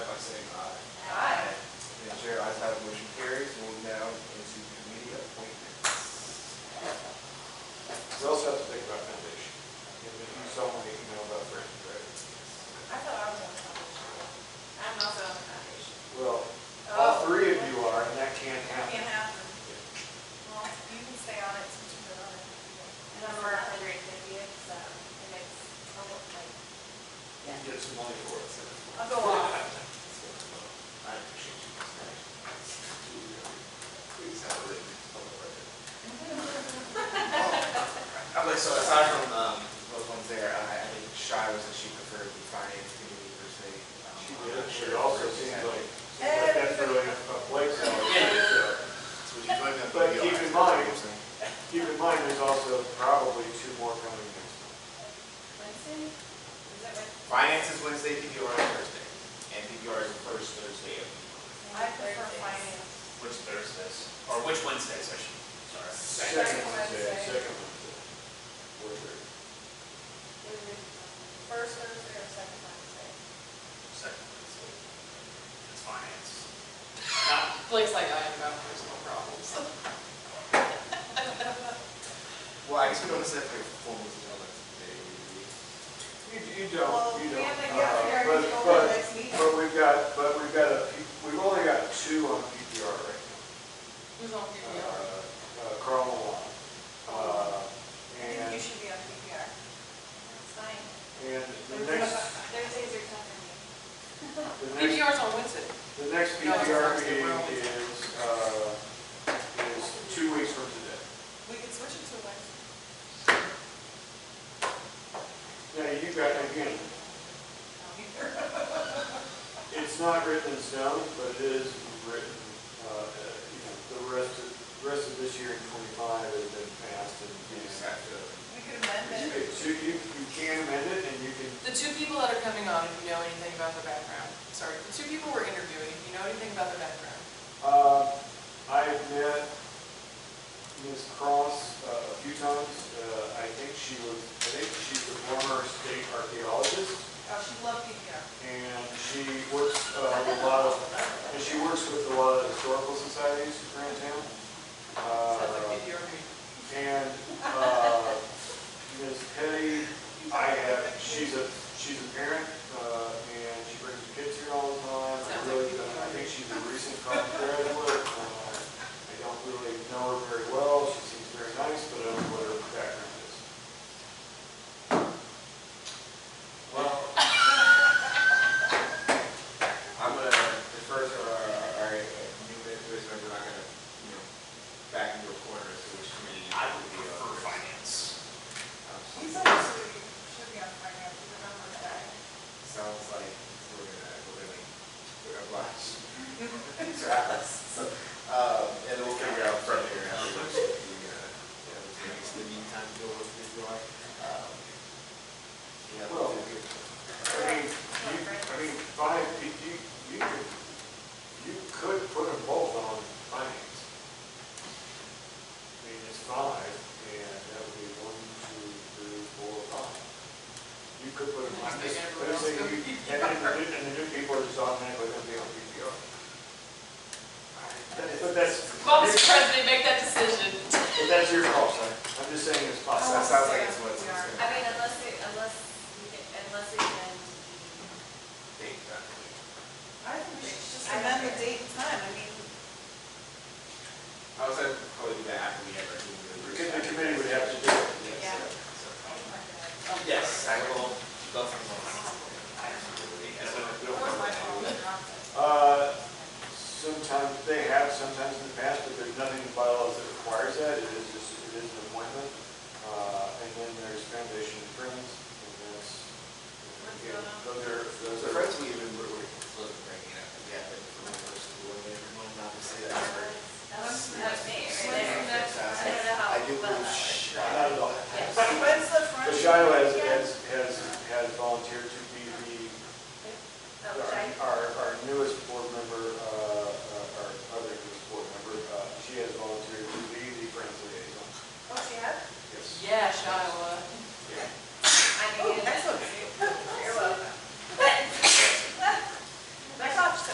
Oh. so aside from, um, those ones there, I, I think Shy was that she preferred the finance committee per se. Um, She I'm did, not she sure also where seems it's at. like, seems like that's really a a place now. So would you join them? But You'll keep have to- in mind- Keep in mind, there's also probably two more coming next month. Wednesday? Is that right? Finance is Wednesday, PPR is Thursday, and PPR is the first Thursday of, I prefer finance. Which Thursdays, or which Wednesdays, I should, sorry. Second Wednesday. Second Wednesday. We're there. First Thursday or second Wednesday? Second Wednesday. It's finance. Not, Blake's like, I have no personal problems. well, I guess we don't necessarily have formal agenda today. You, you don't, you Well, we don't. have to Uh, get but- everything over but- the next meeting. But we've got, but we've got a, P- we've only got two on PPR right Who's on now. PPR? Uh, uh, Carl Malone. I Uh, think you and, should be on PPR. That's fine. and the next, Thursdays are tough for me. the next PPR's on Wednesday. The next No, PPR it's Thursday, meeting we're on is, uh, is two weeks from today. We can switch it to Wednesday. Now, you got, again, Um, it's not written in stone, but it is written, uh, you know, the rest of, rest of this year in twenty-five has been passed and. We just have to, We could amend it. You- So you, you can amend it and you can, The two people that are coming on, if you know anything about the background, sorry, the two people we're interviewing, if you know anything about the background, uh, I've met Ms. Cross uh, a few times. Uh, I think she was, I think she's a former state archaeologist. Oh, she loved PPR. and she works uh, with a lot of, and she works with a lot of historical societies around town. sounds like Uh, PPR meeting. And uh, Ms. Petty, I have, she's a, she's a parent, uh, and she brings her kids here all the time. I Sounds like really, you. don't- I think she's a recent college graduate. Uh, I don't really know her very well, she seems very nice, but I don't know what her background is. well, I'm gonna refer to our, our uh, new members, but we're not gonna, you know, back into a corner as to which committee. I would we are. prefer finance. Um, He's always, should be on finance, remember that. Sounds like we're gonna, we're gonna, we're gonna oblige. Travis. So, Um, and we'll figure out from here how we should be, uh, you know, doing this in the meantime, deal with this going. Um, Yeah, Well, we'll do it. I mean, you, I mean, fine, you, you, you could, you could put them both on finance. I mean, it's five, and that would be one, two, three, four, five. You could put them on this, but I'm saying you, and then the new, and the new people are just automatically gonna be on PPR. That- But that's, Well, Mr. President, make that decision. but that's your call, sir. I'm just saying it's So That possible. sounds like it's what's. I Oh, I mean, unless it, unless, we can- unless it can be, Think that. I think we should just amend the date and time, I mean, I was Oh. at, Oh, uh, Uh, Uh, Oh, uh,